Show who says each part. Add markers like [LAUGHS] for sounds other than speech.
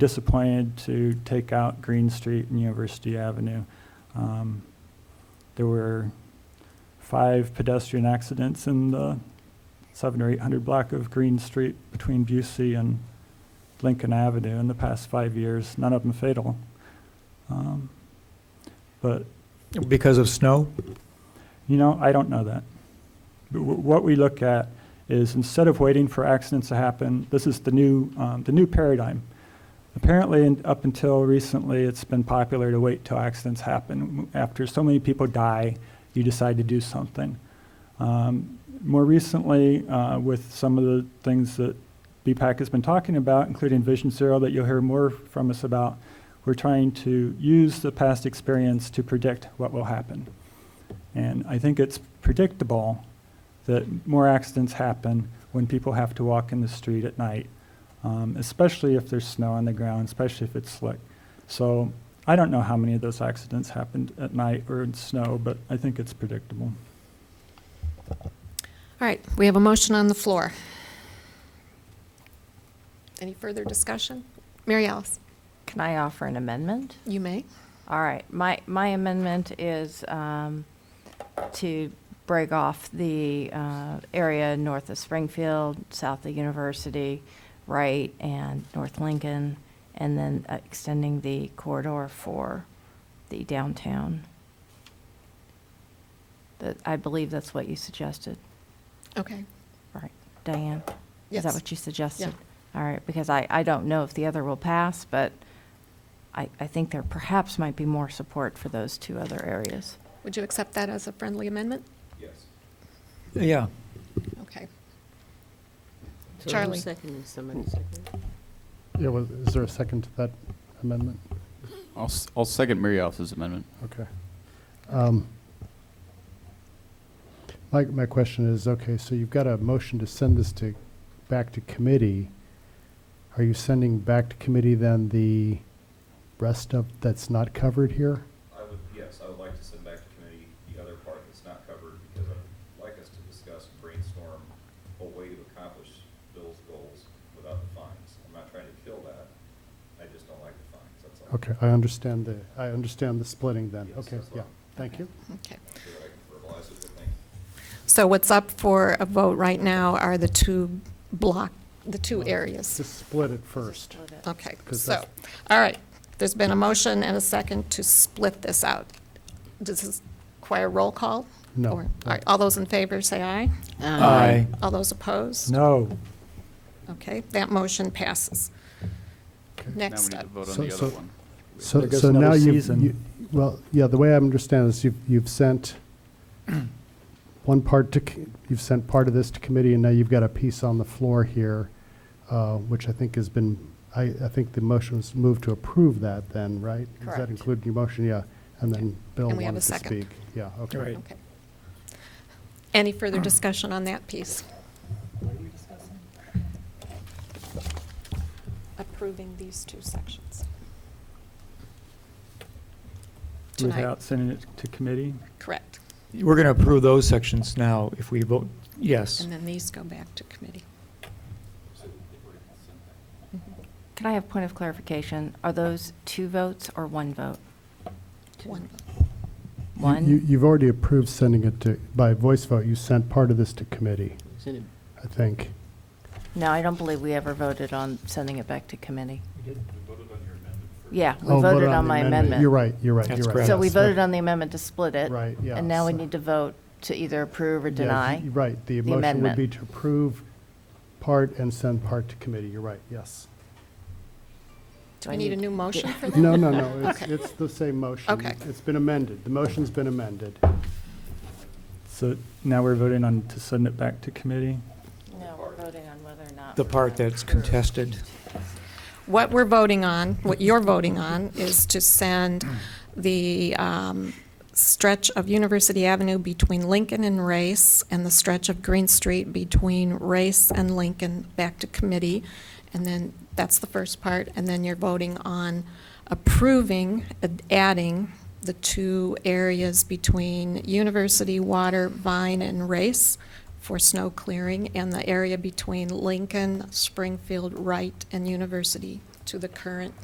Speaker 1: disappointed to take out Green Street and University Avenue. Um, There were five pedestrian accidents in the seven or eight hundred block of Green Street between Busey and Lincoln Avenue in the past five years, none of them fatal. Um, But
Speaker 2: Because of snow?
Speaker 1: you know, I don't know that. But wh- What we look at is instead of waiting for accidents to happen, this is the new, um, the new paradigm. Apparently, in- up until recently, it's been popular to wait till accidents happen. After so many people die, you decide to do something. Um, More recently, uh, with some of the things that BPAC has been talking about, including Vision Zero, that you'll hear more from us about, we're trying to use the past experience to predict what will happen. And I think it's predictable that more accidents happen when people have to walk in the street at night, um, especially if there's snow on the ground, especially if it's slick. So I don't know how many of those accidents happened at night or in snow, but I think it's predictable.
Speaker 3: All right, we have a motion on the floor. Any further discussion? Mary Alice,
Speaker 4: Can I offer an amendment?
Speaker 3: you may.
Speaker 4: All right, my, my amendment is um, to break off the uh, area north of Springfield, south of University, right, and North Lincoln, and then uh, extending the corridor for the downtown. That, I believe that's what you suggested,
Speaker 3: Okay.
Speaker 4: right, Diane? Is
Speaker 3: Yes.
Speaker 4: that what you suggested? All right, because I, I don't know if the other will pass, but I, I think there perhaps might be more support for those two other areas.
Speaker 3: Would you accept that as a friendly amendment?
Speaker 2: Yeah.
Speaker 3: Okay.
Speaker 5: So who's
Speaker 3: Charlie.
Speaker 5: seconding? Somebody seconding?
Speaker 6: Yeah, well, is there a second to that amendment?
Speaker 7: I'll, s- I'll second Mary Alice's amendment.
Speaker 6: Okay. Um, My, my question is, okay, so you've got a motion to send this to, back to committee. Are you sending back to committee then the rest of, that's not covered here?
Speaker 8: I would, yes, I would like to send back to committee the other part that's not covered, because I'd like us to discuss and brainstorm a way to accomplish Bill's goals without the fines. I'm not trying to kill that, I just don't like the fines, that's all.
Speaker 6: Okay, I understand the, I understand the splitting then.
Speaker 8: Yes,
Speaker 6: Okay,
Speaker 8: that's
Speaker 6: yeah,
Speaker 8: all.
Speaker 6: thank you.
Speaker 3: Okay.
Speaker 8: I'm sure I can verbalize it, but thank you.
Speaker 3: So what's up for a vote right now are the two block, the two areas.
Speaker 6: Just split it first.
Speaker 3: Okay,
Speaker 6: 'Cause
Speaker 3: so,
Speaker 6: that's-
Speaker 3: all right. There's been a motion and a second to split this out. Does this require roll call?
Speaker 6: No.
Speaker 3: Or- All right, all those in favor, say aye.
Speaker 2: Aye.
Speaker 3: All those opposed?
Speaker 2: No.
Speaker 3: Okay, that motion passes.
Speaker 6: Okay.
Speaker 7: Now we
Speaker 3: Next
Speaker 7: need to
Speaker 3: up.
Speaker 7: vote on
Speaker 6: So-
Speaker 7: the
Speaker 6: so-
Speaker 7: other one.
Speaker 6: So,
Speaker 1: There goes
Speaker 6: so
Speaker 1: another
Speaker 6: now you've,
Speaker 1: season.
Speaker 6: you- well, yeah, the way I understand is you've,
Speaker 1: [CLEARS THROAT]
Speaker 6: you've sent one part to, c- you've sent part of this to committee, and now you've got a piece on the floor here, uh, which I think has been, I, I think the motion was moved to approve that then, right? Does that
Speaker 3: Correct.
Speaker 6: include your motion? Yeah. And then Bill
Speaker 3: And we have a
Speaker 6: wanted to
Speaker 3: second.
Speaker 6: speak. Yeah, okay.
Speaker 2: Right.
Speaker 3: Okay. Any further discussion on that piece? Approving these two sections. Tonight,
Speaker 1: Without sending it to committee,
Speaker 3: correct.
Speaker 2: We're going to approve those sections now if we vote yes.
Speaker 3: And then these go back to committee.
Speaker 4: Can I have point of clarification? Are those two votes or one vote?
Speaker 3: One vote.
Speaker 6: You-
Speaker 4: One?
Speaker 6: You, you've already approved sending it to, by voice vote, you sent part of this to committee,
Speaker 5: Send it
Speaker 6: I think.
Speaker 4: No, I don't believe we ever voted on sending it back to committee. We did, we
Speaker 6: Oh, vote
Speaker 4: voted on your amendment. Yeah, we voted on my
Speaker 6: the
Speaker 4: amendment.
Speaker 6: You're right, you're right, you're
Speaker 2: That's
Speaker 6: right.
Speaker 2: correct.
Speaker 4: So we
Speaker 6: Yes,
Speaker 4: voted
Speaker 6: okay.
Speaker 4: on the amendment to split it.
Speaker 6: Right, yeah,
Speaker 4: And now we
Speaker 6: so-
Speaker 4: need to vote to either approve or
Speaker 6: Yeah,
Speaker 4: deny.
Speaker 6: you're Right, the
Speaker 4: the
Speaker 6: motion would
Speaker 4: amendment.
Speaker 6: be to approve part and send part to committee, you're right, yes.
Speaker 4: Do
Speaker 3: We
Speaker 4: I
Speaker 3: need a new motion
Speaker 6: [LAUGHS]
Speaker 3: for that?
Speaker 6: No, no, no, it's,
Speaker 3: Okay.
Speaker 6: it's the same motion.
Speaker 3: Okay.
Speaker 6: It's been amended, the motion's been amended.
Speaker 1: so now we're voting on to send it back to committee.
Speaker 4: No, we're voting on whether or not.
Speaker 2: The part that's contested.
Speaker 3: What we're voting on, what you're voting on, is to send the um, stretch of University Avenue between Lincoln and Race, and the stretch of Green Street between Race and Lincoln back to committee. And then, that's the first part, and then you're voting on approving, adding the two areas between University Water, Vine, and Race for snow clearing and the area between Lincoln, Springfield, Wright, and University to the current